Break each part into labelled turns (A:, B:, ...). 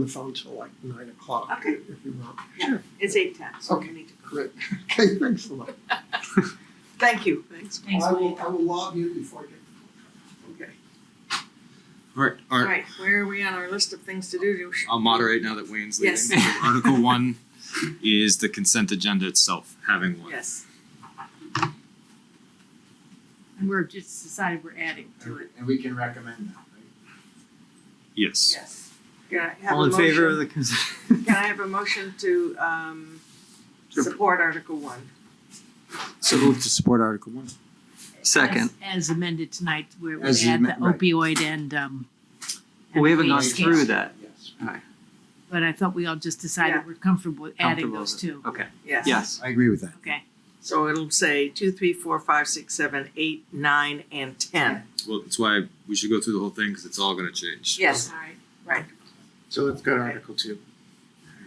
A: the phone till like nine o'clock.
B: Okay.
A: If you want.
B: Yeah.
A: Sure,
B: It's eight ten, so we
A: Okay.
B: need to go.
A: great. Okay, thanks a lot.
B: Thank you. Thanks.
C: Thanks,
A: I will,
C: Mike.
A: I will log in before I get the
B: Okay.
D: Alright,
B: All right,
D: alright,
B: where are we on our list of things to do?
D: I'll moderate now that Wayne's leaving.
B: Yes.
D: So Article one is the consent agenda itself, having one.
B: Yes.
C: And we're just decided we're adding to it.
E: And we can recommend that, right?
D: Yes.
B: Yes. Can I have
F: All
B: a
F: in favor of
B: motion?
F: the consent?
B: Can I have a motion to um support Article one?
F: So move to support Article One.
G: Second.
C: As as amended tonight, where we
E: As
C: add the
E: amended, right.
C: opioid and, um. and
G: We haven't gone
C: waste.
G: through
E: Uh,
G: that.
E: Yes.
C: But I thought we all just
B: Yeah.
C: decided we're comfortable with adding
G: Comfortable
C: those
G: with
C: two.
G: Okay,
B: Yes.
G: yes.
E: I agree with that.
C: Okay,
B: So it'll say two, three, four, five, six, seven, eight, nine, and ten.
D: Well, that's why we should go through the whole thing, cause it's all gonna change.
B: Yes.
C: all right.
E: So let's go to Article two.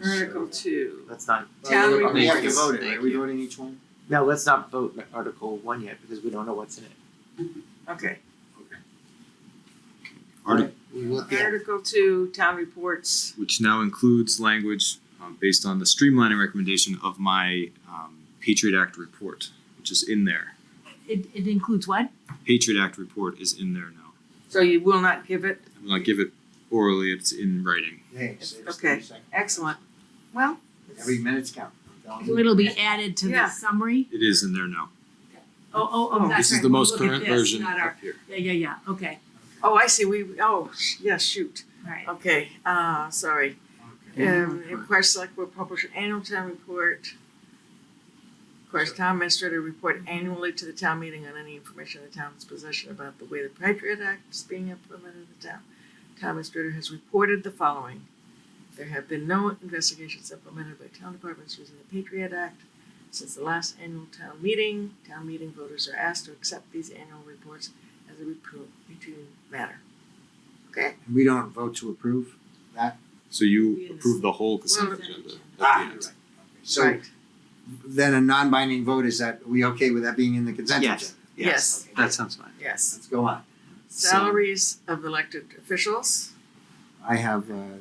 B: Article two.
H: Let's not.
B: Town
H: we
B: review.
H: have to vote it.
G: Thank
H: Are we
G: you.
H: voting each one? No, let's not vote Article One yet because we don't know what's in it.
B: Okay.
D: Artic-
E: We look at,
B: Article two, town reports.
D: which now includes language um, based on the streamlining recommendation of my um, Patriot Act report, which is in there.
C: It, it includes what?
D: Patriot Act report is in there now.
B: So you will not give it?
D: I will not give it orally, it's in writing.
E: hey, saves
B: Okay.
E: thirty seconds.
B: Excellent. Well,
E: Every minute's count. I'm telling you.
C: It'll be added to
B: Yeah.
C: the summary?
D: It is in there now.
C: Oh, oh,
B: Oh.
C: oh, that's right.
D: This is the
C: We'll
D: most
C: look at
D: current
C: this,
D: version
C: Not
D: up
C: our,
D: here.
C: yeah, yeah, yeah, okay,
B: oh, I see. We, oh, sh- yeah, shoot.
C: all right.
B: Okay, uh, sorry.
E: Okay.
B: Um, request select board publish an annual town report. Request town administrator report annually to the town meeting on any information in the town's possession about the way the Patriot Act is being implemented in the town. Town administrator has reported the following. There have been no investigations implemented by town departments using the Patriot Act since the last annual town meeting. Town meeting voters are asked to accept these annual reports as a repro- routine matter.
E: And we don't vote to approve that?
D: So
C: We
D: you
C: in
D: approve
C: the-
D: the whole consent
C: Well,
D: agenda. at the
E: Ah,
D: end.
E: you're right. Okay. So
B: Right.
E: then a non-binding vote, is that, are we okay with that being in the consent agenda?
G: Yes.
B: Yes.
E: Okay,
G: That sounds fine.
B: Yes.
E: Let's go on.
D: So-
B: Salaries of elected officials,
E: I have uh,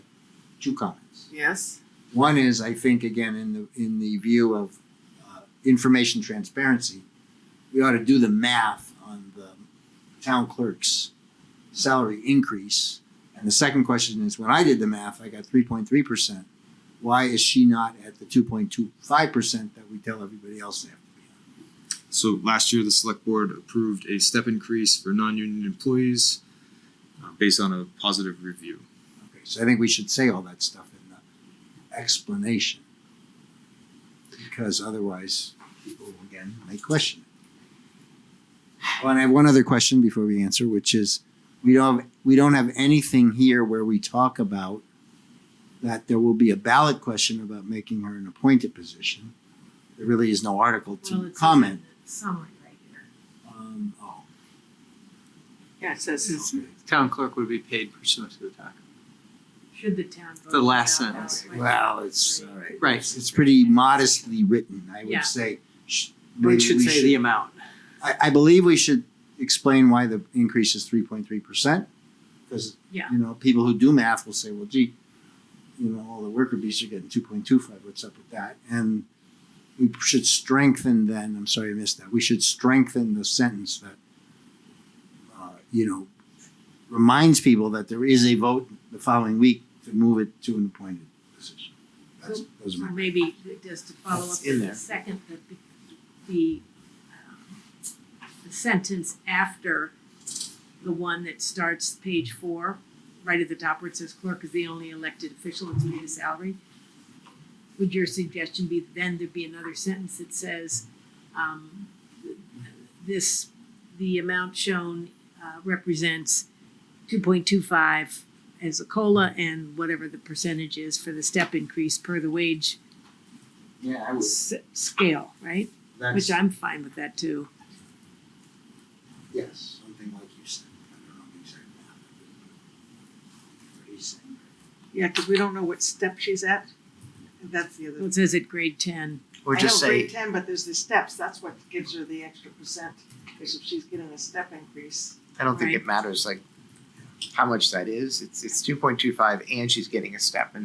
E: two comments.
B: yes,
E: One is, I think, again, in the in the view of uh, information transparency, we ought to do the math on the town clerk's salary increase. And the second question is, when I did the math, I got three point three percent. Why is she not at the two point two five percent that we tell everybody else they have to be? on?
D: So last year, the select board approved a step increase for non-union employees uh, based on a positive review.
E: Okay, so I think we should say all that stuff in the explanation, because otherwise people will again may question it. Oh, and I have one other question before we answer, which is we don't have, we don't have anything here where we talk about that there will be a ballot question about making her an appointed position. There really is no article
C: Well,
E: to
C: it's
E: comment.
C: in the Summary right here.
E: Um, oh,
B: yeah, it says,
E: okay.
G: Town clerk would be paid pursuant to the tax.
C: Should the town vote?
G: The last
C: it out that
G: sentence.
C: way?
E: Well, it's uh,
G: Right.
E: It's, it's pretty modestly written. I would
C: Yeah.
E: say. Sh-
G: We
E: maybe
G: should
E: we
G: say the amount.
E: I, I believe we should explain why the increase is three point three percent. Because,
C: Yeah.
E: you know, people who do math will say, well, gee, you know, all the worker bees are getting two point two five, what's up with that? And we should strengthen then, I'm sorry I missed that, we should strengthen the sentence that, uh, you know, reminds people that there is a vote the following week to move it to an appointed position. That's, those are
C: So
E: my.
C: maybe just to follow up
E: That's in
C: to the
E: there.
C: second, the, the, um, the sentence after the one that starts page four, right at the top where it says clerk is the only elected official that's paid a salary. Would your suggestion be then there'd be another sentence that says, um, this, the amount shown, uh, represents two point two five as a cola and whatever the percentage is for the step increase per the wage
E: Yeah, I
C: s- scale, right?
E: That's,
C: Which I'm fine with that too.
E: yes, something like you said. I don't know the exact math. What he's saying.
B: yeah, cause we don't know what step she's at. That's the other.
C: It says at grade ten.
E: Or just
B: I know
E: say,
B: grade ten, but there's the steps, that's what gives her the extra percent, cause if she's getting a step increase.
H: I don't think it matters like how much that is. It's it's two point two five and she's getting a step and